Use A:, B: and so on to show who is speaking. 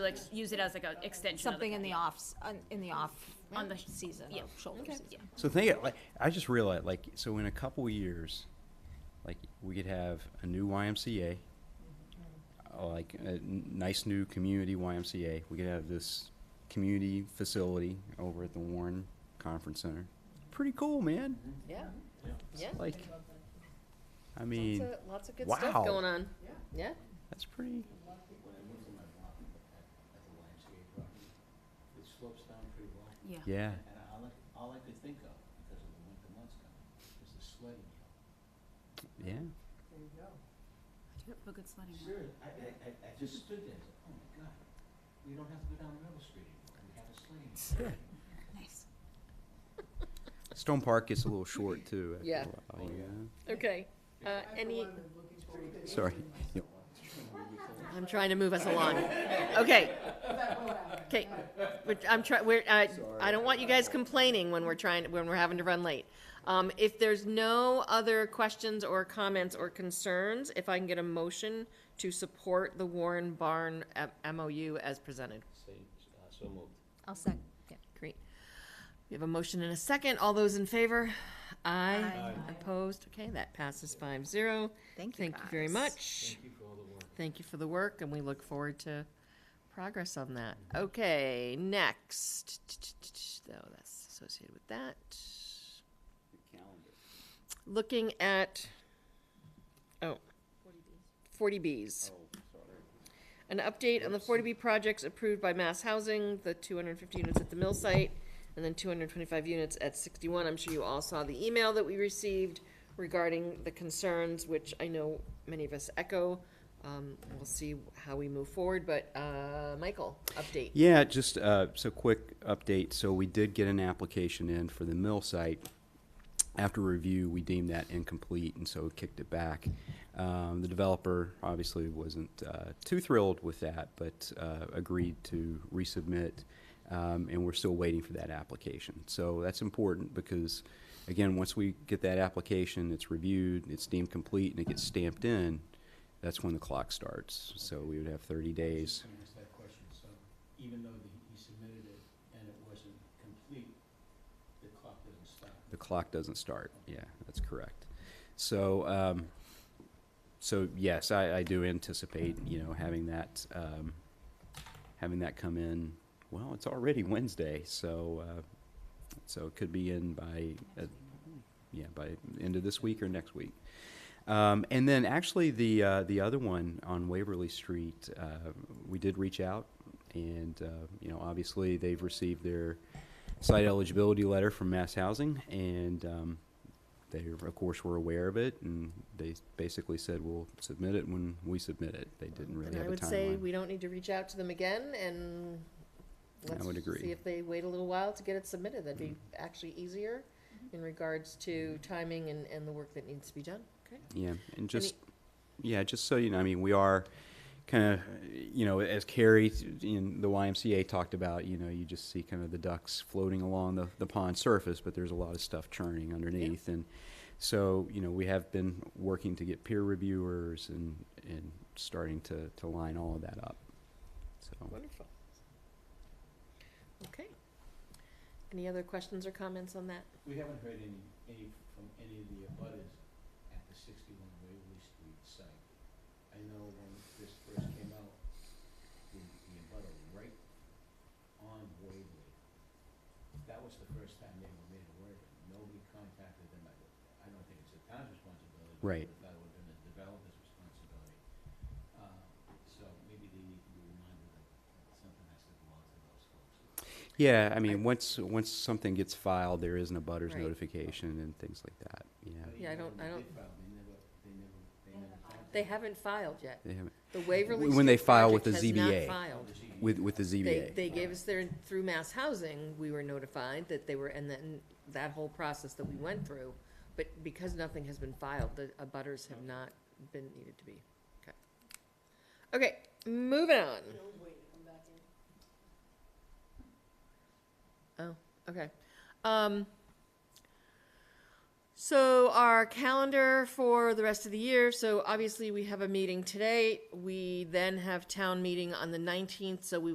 A: Like, use it as like an extension of the
B: Something in the
A: patio.
B: off, in the off
A: On the-
B: season,
A: yeah.
B: or shoulder
A: Okay.
B: season.
A: Yeah.
C: So think it like I just realized like so in a couple years, like we could have a new YMCA, uh, like a n- nice new community YMCA. We could have this community facility over at the Warren Conference Center. Pretty cool, man.
D: Yeah, yeah.
C: Like, I
D: Lots
C: mean,
D: of, lots of good
C: wow.
D: stuff going on. Yeah.
C: that's pretty.
E: When I moved from my block at the YMCA property, it slopes down pretty well.
C: Yeah.
E: And I- all I, all I could think of, because of the winter months coming, is the sledding
C: Yeah.
E: hill.
A: Do a good sledding one.
E: Seriously, I, I, I, I just stood there, and said, oh my God, we don't have to go down River Street anymore, we have a sledding hill.
A: Nice.
C: Stone Park gets a little short too. after a
D: Yeah.
C: while, yeah.
D: Okay. Uh, any,
C: Sorry. Yep.
D: I'm trying to move us along. Okay. Okay. We're- I'm trying, we're, I, I don't want you guys complaining when we're trying, when we're having to run late. Um, if there's no other questions or comments or concerns, if I can get a motion to support the Warren Barn uh, M- MOU as presented.
E: Say, uh, so moved.
B: I'll sec, yeah.
D: Great. We have a motion and a second. All those in favor? Aye. Opposed? Okay, that passes five zero.
B: Thank you,
D: Thank you very
B: guys.
D: much.
E: Thank you for all the work.
D: Thank you for the work, and we look forward to progress on that. Okay, next. Though that's associated with that. Looking at, oh. Forty Bs. An update on the forty B projects approved by Mass Housing, the two hundred and fifty units at the mill site, and then two hundred and twenty-five units at sixty-one. I'm sure you all saw the email that we received regarding the concerns, which I know many of us echo. Um, we'll see how we move forward, but, uh, Michael, update.
C: Yeah, just uh, so quick update. So we did get an application in for the mill site. After review, we deemed that incomplete, and so kicked it back. Um, the developer obviously wasn't uh, too thrilled with that, but uh, agreed to resubmit, um, and we're still waiting for that application. So that's important because, again, once we get that application, it's reviewed, it's deemed complete, and it gets stamped in. That's when the clock starts. So we would have 30 days.
E: Just gonna ask that question, so even though the- he submitted it and it wasn't complete, the clock doesn't stop.
C: The clock doesn't start. Yeah, that's correct. So, um, so yes, I, I do anticipate, you know, having that, um, having that come in. Well, it's already Wednesday, so, uh, so it could be in by, uh, yeah, by end of this week or next week. Um, and then actually the, uh, the other one on Waverly Street, uh, we did reach out and, uh, you know, obviously they've received their, site eligibility letter from Mass Housing, and um, they, of course, were aware of it, and they basically said, "We'll submit it when we submit it." They didn't really
D: And I
C: have a
D: would say
C: timeline.
D: we don't need to reach out to them again, and
C: I
D: let's
C: would agree. Mm-hmm.
D: see if they wait a little while to get it submitted. That'd be actually easier in regards to timing and, and the work that needs to be done. Okay.
C: Yeah, and just, yeah, just so you know, I mean, we are kind of, you know, as Carrie in the YMCA talked about, you know, you just see kind of the ducks floating along the, the pond surface, but there's a lot of stuff churning underneath. And so, you know, we have been working to get peer reviewers and, and starting to, to line all of that up. So.
D: Wonderful. Okay. Any other questions or comments on that?
E: We haven't heard any, any, from any of the abutters at the sixty-one Waverly Street site. I know when this first came out, the, the abutter right on Waverly, that was the first time they were made aware of it. Nobody contacted them. I, I don't think it's the town's responsibility. but
C: Right.
E: I thought it would have been the developer's responsibility. Uh, so maybe they need to be reminded that something has to go out to those folks.
C: Yeah, I mean, once, once something gets filed, there isn't a butters
D: Right.
C: notification and things like that, yeah.
E: But
D: Yeah, I
E: even
D: don't-
E: when
D: I
E: they
D: don't-
E: did file, They never, they never, they never contacted.
D: They haven't filed yet.
C: They haven't-
D: The Waverly
C: When they
D: Street
C: file with
D: project
C: the
D: has not
C: ZBA.
D: filed.
C: With, with the
D: They,
C: ZBA,
D: they gave us their, through Mass Housing, we were notified that they were, and then that whole process that we went through. But because nothing has been filed, the abutters have not been needed to be. Okay. Okay, moving on. Oh, okay. Um, so our calendar for the rest of the year, so obviously we have a meeting today. We then have town meeting on the nineteenth, so we